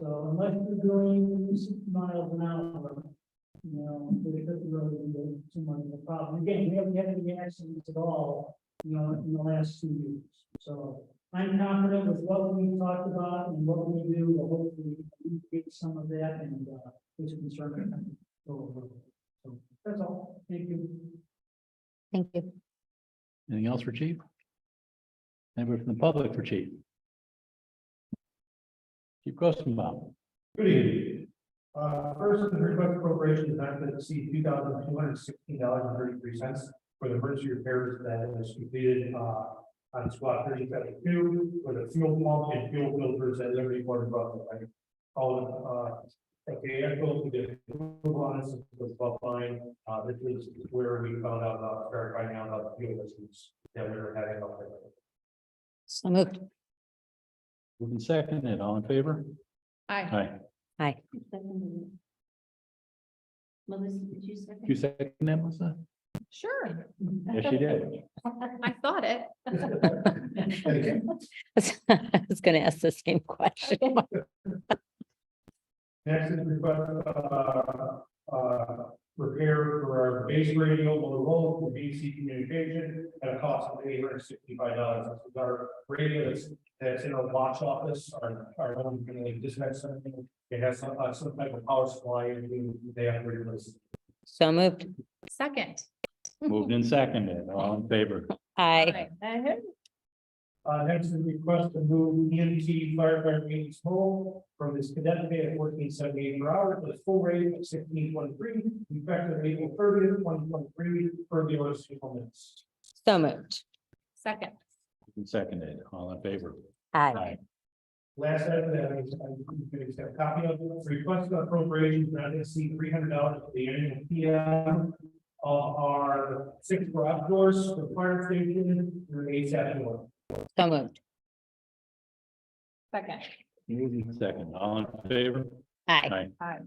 So unless you're doing six miles an hour, you know, there doesn't really be too much of a problem. Again, we haven't had any accidents at all, you know, in the last two years. So I'm confident with what we talked about and what we do, we'll hopefully get some of that and, uh, which concern. So that's all. Thank you. Thank you. Anything else for chief? Anybody from the public for chief? Chief Grossenbaum, Good evening. Uh, first, the request appropriation is not to exceed two thousand two hundred sixteen dollars and thirty-three cents for the emergency repairs that was completed, uh, on squad thirty seventy-two for the fuel pump and fuel filters at Liberty Water Buffalo. All, uh, okay, I go to the approval on this was above line, uh, this is where we found out about, started finding out about the fuel issues that we were having up there. So moved. moving second and all in favor? Aye. Aye. Aye. Melissa, did you second? You second that, Melissa? Sure. Yes, she did. I thought it. Okay. I was gonna ask the same question. Next is request, uh, uh, repair for our base radio Motorola for BC communication at a cost of eight hundred and sixty-five dollars. This is our radio that's, that's in our watch office, our, our own, you know, dispatch center. It has some, uh, some type of power supply and we- they have to replace. So moved. Second. Moved in second and all in favor? Aye. Uh, next is request to move EMT firefighter meetings home from this cadet pay at fourteen seventy-eight per hour to the full rate of sixteen twenty-three, effective April thirtieth, twenty twenty-three, per the order of civil minutes. So moved. Second. Moved and Seconded, all in favor? Aye. Last item that I, I could accept a copy of, request appropriations not to exceed three hundred dollars for the annual PM. Of our six for outdoors, for fire station, and eight seven one. So moved. Second. Moved in second, all in favor? Aye. Aye.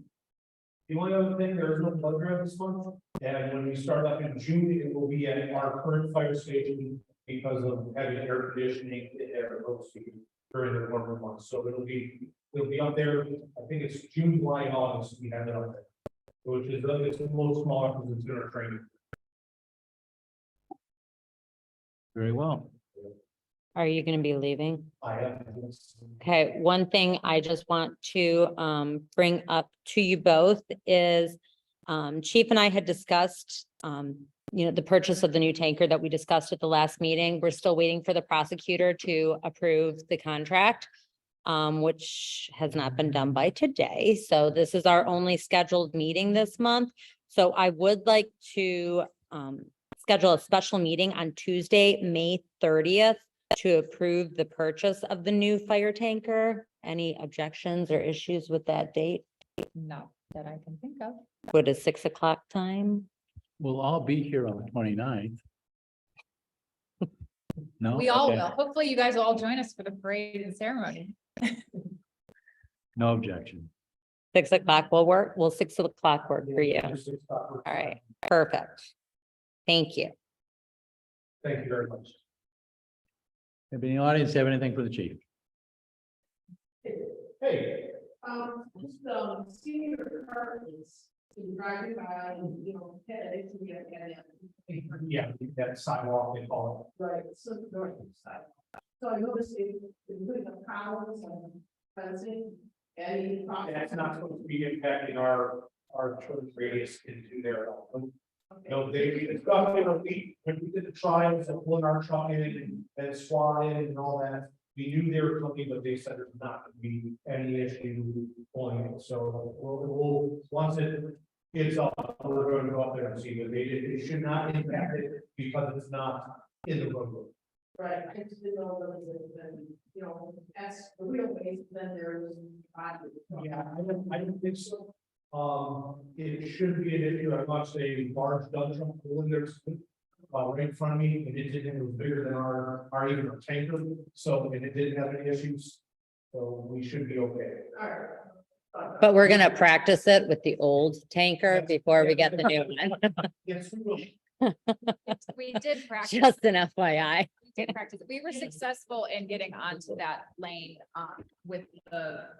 The only other thing, there is no blood drive this month, and when we start up in June, it will be at our current fire station because of having air conditioning in there mostly during the warmer months, so it'll be, it'll be up there, I think it's June, July, and August, we have it up there. Which is, uh, it's a little smaller because it's in our training. Very well. Are you gonna be leaving? I have. this. Okay, one thing I just want to um bring up to you both is um Chief and I had discussed um, you know, the purchase of the new tanker that we discussed at the last meeting. We're still waiting for the prosecutor to approve the contract. Um, which has not been done by today. So this is our only scheduled meeting this month. So I would like to um schedule a special meeting on Tuesday, May thirtieth to approve the purchase of the new fire tanker. Any objections or issues with that date? No, that I can think of. Would a six o'clock time? We'll all be here on the 29th. No? We Oh, all Okay. will. Hopefully you guys will all join us for the parade and ceremony. No objection. Six o'clock will work? Will six o'clock work for you? Just to stop for- All right, perfect. Thank you. Thank you very much. Anybody in the audience have anything for the chief? Hey, Um, just, um, senior apartments, been driving by, and, you know, headaches, we have, and, yeah, that sidewalk, they call it. right, so the north side. So I noticed they, they put up columns and fencing, and. And that's not supposed to be impacting our, our choice radius into their. No, they, we discussed, you know, we, when we did the trials and pulling our truck in and and SWAT in and all that. We knew they were coming, but they said there's not gonna be any issue pulling it, so we'll, we'll, once it. It's up, we're going to go up there and see, but they, did- it should not impact it because it's not in the roadway. Right, I just didn't know whether it was, um, you know, that's the real way, then there's. Yeah, I don't, I don't think so. Um, it should be an issue, I watched a large dump truck pull in there, uh, right in front of me, and it didn't, it was bigger than our, our even our tanker, so, and it didn't have any issues. So we should be okay. All right. Uh, But we're gonna practice it with the old tanker Yes. before we get the new one. Yes, we will. We did practice. Just an FYI. We did practice. We were successful in getting onto that lane um with the